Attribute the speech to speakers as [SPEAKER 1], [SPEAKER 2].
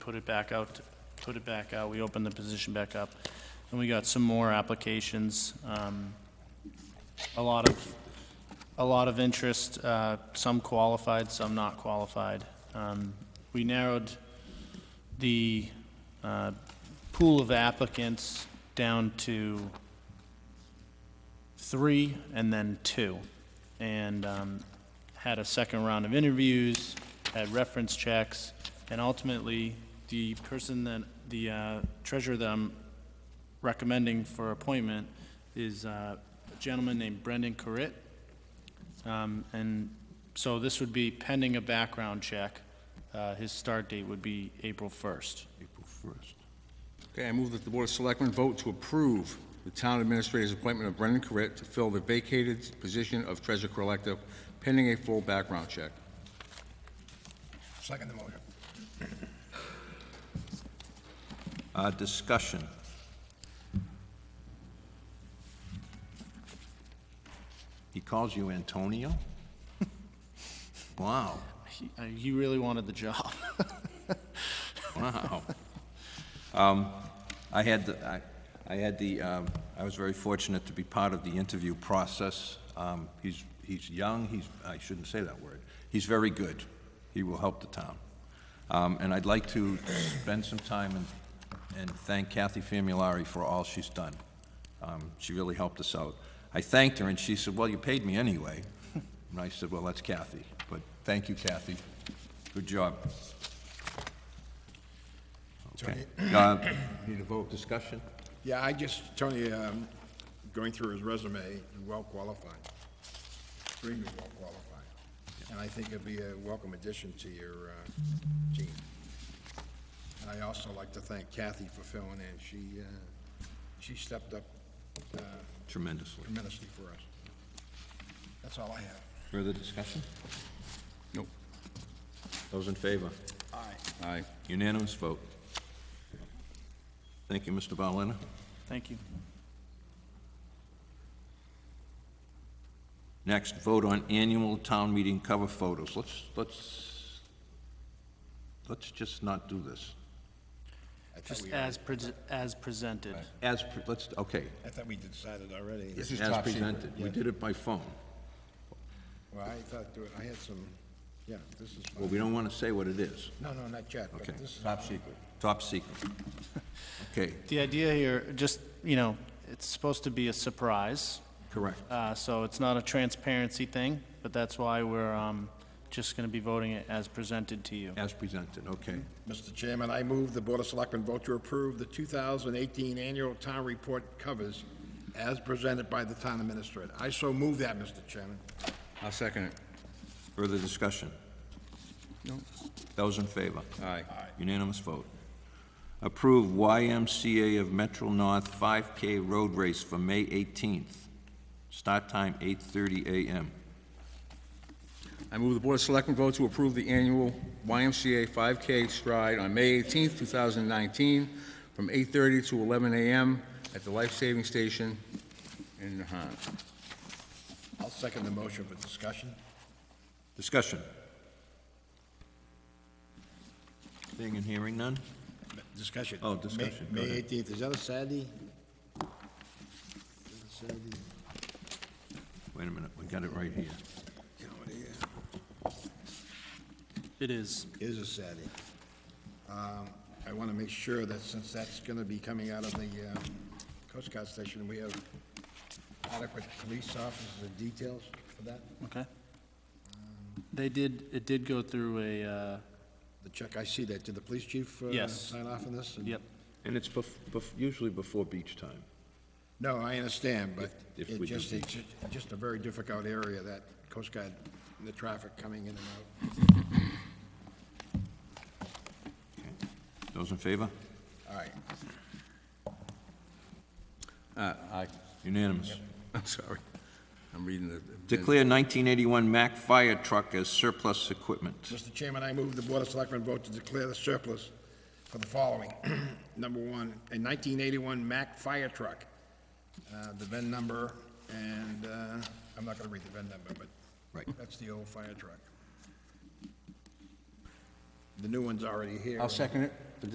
[SPEAKER 1] put it back out, put it back out, we opened the position back up, and we got some more applications. Um, A lot of, a lot of interest, uh, some qualified, some not qualified. Um, We narrowed the uh, pool of applicants down to three and then two. And um, had a second round of interviews, had reference checks, and ultimately, the person that, the uh, treasurer that I'm recommending for appointment is uh, a gentleman named Brendan Corit. Um, And so this would be pending a background check. Uh, His start date would be April 1st.
[SPEAKER 2] April 1st.
[SPEAKER 3] Okay, I move that the Board of Selectmen vote to approve the Town Administrator's appointment of Brendan Corrett to fill the vacated position of Treasurer Collector pending a full background check.
[SPEAKER 4] Second the motion.
[SPEAKER 2] Uh, Discussion. He calls you Antonio? Wow,
[SPEAKER 1] He uh, he really wanted the job.
[SPEAKER 2] wow. Um, I had, the- I I had the, um, I was very fortunate to be part of the interview process. Um, He's, he's young, he's, I shouldn't say that word. He's very good. He will help the town. Um, And I'd like to spend some time and, and thank Kathy Famulari for all she's done. Um, She really helped us out. I thanked her, and she said, "Well, you paid me anyway." And I said, "Well, that's Kathy." But thank you, Kathy. Good job. Okay. Uh, Need a vote, discussion?
[SPEAKER 4] Yeah, I just, Tony, um, going through his resume, he's well qualified, extremely well qualified. And I think it'd be a welcome addition to your uh, team. And I also like to thank Kathy for filling in. She, uh, she stepped up uh,
[SPEAKER 2] Tremendously.
[SPEAKER 4] tremendously for us. That's all I have.
[SPEAKER 2] Further discussion?
[SPEAKER 3] Nope.
[SPEAKER 2] Those in favor?
[SPEAKER 4] Aye.
[SPEAKER 3] Aye.
[SPEAKER 2] Unanimous vote. Thank you, Mr. Balena.
[SPEAKER 1] Thank you.
[SPEAKER 2] Next, vote on annual town meeting cover photos. Let's, let's, let's just not do this.
[SPEAKER 4] I thought
[SPEAKER 1] Just
[SPEAKER 4] we-
[SPEAKER 1] as, pres- as presented.
[SPEAKER 2] As, pre- let's, okay.
[SPEAKER 4] I thought we decided already.
[SPEAKER 3] This is
[SPEAKER 2] As
[SPEAKER 3] top secret.
[SPEAKER 2] presented. We did it by phone.
[SPEAKER 4] Well, I thought, there- I had some, yeah, this is,
[SPEAKER 2] Well, we don't want to say what it is.
[SPEAKER 4] no, no, not yet, but
[SPEAKER 2] Okay.
[SPEAKER 4] this is.
[SPEAKER 2] secret. Top secret. Okay,
[SPEAKER 1] The idea here, just, you know, it's supposed to be a surprise,
[SPEAKER 2] correct.
[SPEAKER 1] uh, so it's not a transparency thing, but that's why we're um, just going to be voting it as presented to you.
[SPEAKER 2] As presented, okay.
[SPEAKER 4] Mr. Chairman, I move the Board of Selectmen vote to approve the 2018 Annual Town Report covers as presented by the Town Administrator. I so move that, Mr. Chairman.
[SPEAKER 3] I'll second it.
[SPEAKER 2] Further discussion? Those in favor?
[SPEAKER 3] Aye.
[SPEAKER 2] Unanimous vote. Approve YMCA of Metro North 5K Road Race for May 18th. Start time 8:30 a.m.
[SPEAKER 3] I move the Board of Selectmen vote to approve the annual YMCA 5K stride on May 18th, 2019, from 8:30 to 11 a.m. at the Life Saving Station in Nahat.
[SPEAKER 4] I'll second the motion for discussion.
[SPEAKER 2] Discussion? Seeing and hearing none?
[SPEAKER 4] Discussion.
[SPEAKER 2] Oh,
[SPEAKER 4] May-
[SPEAKER 2] discussion. Go
[SPEAKER 4] May
[SPEAKER 2] ahead.
[SPEAKER 4] 18th, is that a Saturday? Is it a Saturday?
[SPEAKER 2] Wait a minute, we got it right here.
[SPEAKER 1] It is.
[SPEAKER 4] Is a Saturday. Um, I want to make sure that since that's going to be coming out of the um, Coast Guard station, we have adequate police officers and details for that.
[SPEAKER 1] Okay. They did, it did go through a, uh,
[SPEAKER 4] The check, I see that, did the police chief uh,
[SPEAKER 1] Yes.
[SPEAKER 4] sign off on this? And-
[SPEAKER 1] yep,
[SPEAKER 2] And it's bef- bef- usually before beach time.
[SPEAKER 4] No, I understand, but
[SPEAKER 2] If- if
[SPEAKER 4] it
[SPEAKER 2] we do
[SPEAKER 4] just,
[SPEAKER 2] the-
[SPEAKER 4] it's ju- just a very difficult area, that Coast Guard, and the traffic coming in and out.
[SPEAKER 2] Those in favor?
[SPEAKER 4] All right,
[SPEAKER 3] Uh, Aye.
[SPEAKER 2] Unanimous.
[SPEAKER 3] I'm sorry. I'm reading the...
[SPEAKER 2] Declare 1981 Mack fire truck as surplus equipment.
[SPEAKER 4] Mr. Chairman, I move the Board of Selectmen vote to declare the surplus for the following. Number one, a 1981 Mack fire truck. Uh, The VIN number, and uh, I'm not going to read the VIN number, but
[SPEAKER 2] Right.
[SPEAKER 4] that's the old fire truck.
[SPEAKER 5] The new one's already here.
[SPEAKER 4] I'll second it.